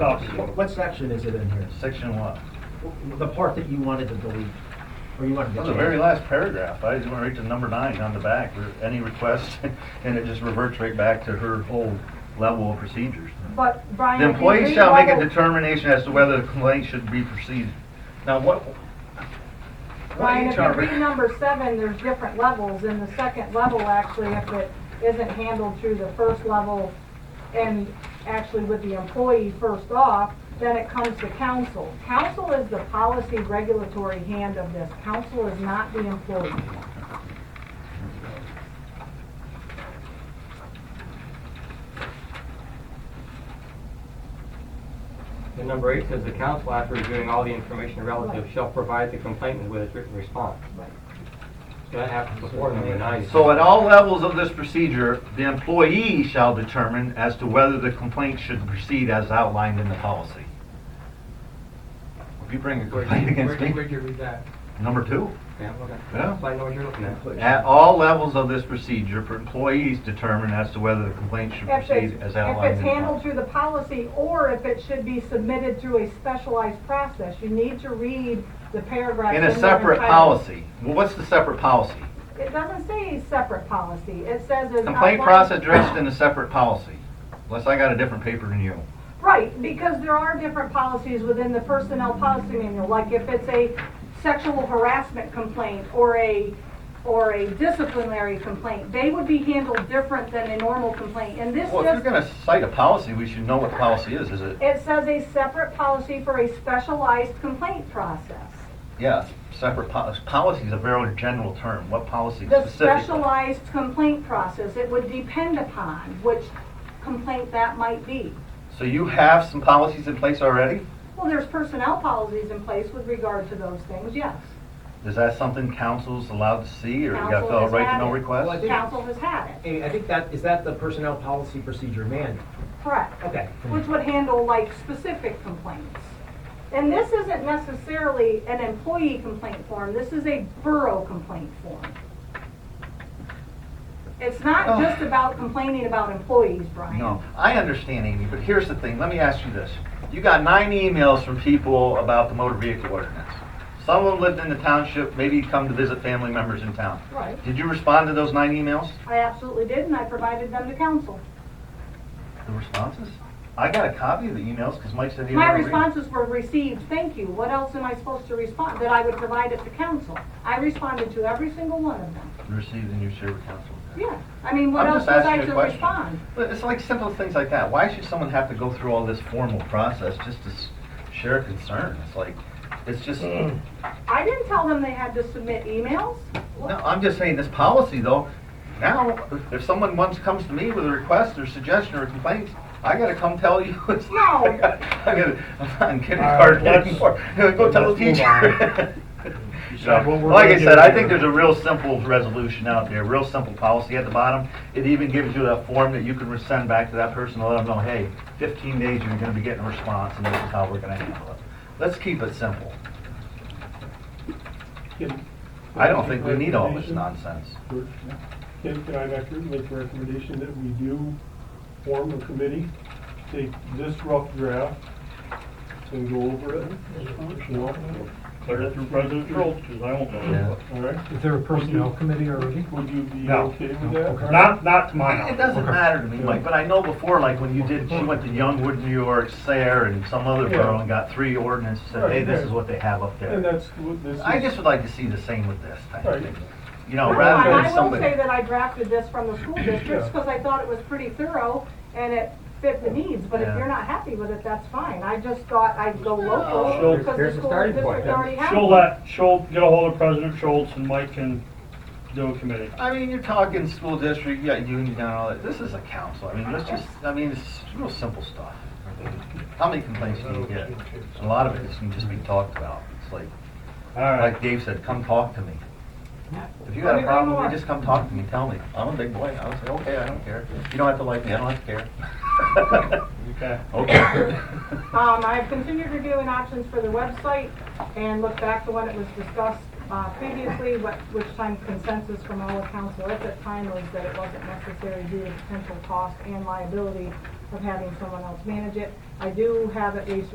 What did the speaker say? What What what section is it in here? Section what? The part that you wanted to delete, or you wanted to Well, change? the very last paragraph, I just went right to number nine on the back, Re- any request, and it just reverts right back to her whole level of procedures. But Brian. The if you employee shall make a read all determination as to whether the complaint should be proceeded. Now, what? the- what Brian, if you HR read number seven, there's different levels, and the second level, actually, if it isn't handled through the first level and actually with the employee first off, then it comes to council. Council is the policy regulatory hand of this. Council is not the employee. And number eight says the council, after reviewing all the information relative, shall provide the complainant with its written response. So That happens before number nine. So at all levels of this procedure, the employee shall determine as to whether the complaint should proceed as outlined in the policy. If you bring a complaint against Where'd me, you read that? number two. Yeah, okay. Yeah. So I know what you're looking at. At all levels of this procedure, for employees determine as to whether the complaint should If it's, proceed as if outlined it's in the handled policy. through the policy, or if it should be submitted through a specialized process, you need to read the paragraph. In a their separate entirety. policy. Well, what's the separate policy? It doesn't say a separate policy, it says it's. Complaint outlined- process addressed in a separate policy, unless I got a different paper than you. Right, because there are different policies within the personnel policy manual, like if it's a sexual harassment complaint or a, or a disciplinary complaint, they would be handled different than a normal complaint, and this Well, if you're just, gonna cite a policy, we should know what the policy is, is it? it says a separate policy for a specialized complaint process. Yeah, separate policy. Policy is a very general term. What policy The specifically? specialized complaint process, it would depend upon which complaint that might be. So you have some policies in place already? Well, there's personnel policies in place with regard to those things, yes. Is that something council's allowed to see, or you gotta fill Council out has right to know had it. Well, I request? think- Council has had it, Amy, I think that, is that the personnel policy procedure manual? correct. Okay. Which would handle like specific complaints. And this isn't necessarily an employee complaint form, this is a borough complaint form. It's not Oh. just about complaining about employees, Brian. No, I understand, Amy, but here's the thing. Let me ask you this. You got nine emails from people about the motor vehicle ordinance. Some of them lived in the township, maybe come to visit family members in town. Right. Did you respond to those nine emails? I absolutely did, and I provided them to council. The responses? I got a copy of the emails, because Mike said he. My never read it. responses were received, thank you. What else am I supposed to respond? That I would provide it to council. I responded to every single one of them. Received and you shared with council. Yeah, I mean, what I'm else just was I asking to you a question. respond? But it's like simple things like that. Why should someone have to go through all this formal process just to s- share a concern? It's like, it's just, no, I didn't tell them they had to submit emails. I'm just saying this policy though, now, if someone once comes to me with a request or suggestion or complaint, I gotta come tell you. It's- No. I gotta, I'm not in All kindergarten right, let's- anymore. Go tell the let's move teacher. said what we're Like I gonna said, do I here. think there's a real simple resolution out there, real simple policy at the bottom. It even gives you that form that you can send back to that person to let them know, hey, 15 days, you're gonna be getting a response, and this is how we're gonna handle it. Let's keep it simple. Can, I don't think we need all this nonsense. can can I, Doctor, make the recommendation that we do form a committee, take this rough draft and go over it? You know, Clear it through President Schultz, because I won't know. It all right? Is there a personnel committee already? Would you be No. okay with that? Not, not to my knowledge. doesn't matter to me, Mike, but I know before, like, when you did, she went to Youngwood, New York, Sayre, and some other borough and got three ordinances, said, hey, this is what they have up And there. that's what this is. I just would like to see the same with this type of thing. You know, No, rather and than I will say somebody. that I drafted this from the school districts because I thought it was pretty thorough and it fit the needs, but if Yeah. you're not happy with it, that's fine. I just thought I'd go Sure. local because the Here's the school starting district point, then. already has. She'll one. let, she'll get ahold of President Schultz and Mike can do a committee. I mean, you're talking school district, you got union down and all that. This is a council. I mean, let's just, I mean, it's real simple stuff. How many complaints do you get? A lot of it is can just be talked about. It's like, All like right, Dave said, come talk to me. If you got a problem, with me, just come talk to me, tell me. I'm a big boy. I'll say, okay, I don't care. You don't have to like me, I don't have to care. okay. Okay. Um, I've continued reviewing options for the website and looked back to when it was discussed, uh, previously, what, which time consensus from all of council at that time was that it wasn't necessary due to potential cost and liability of having someone else manage it. I do have at least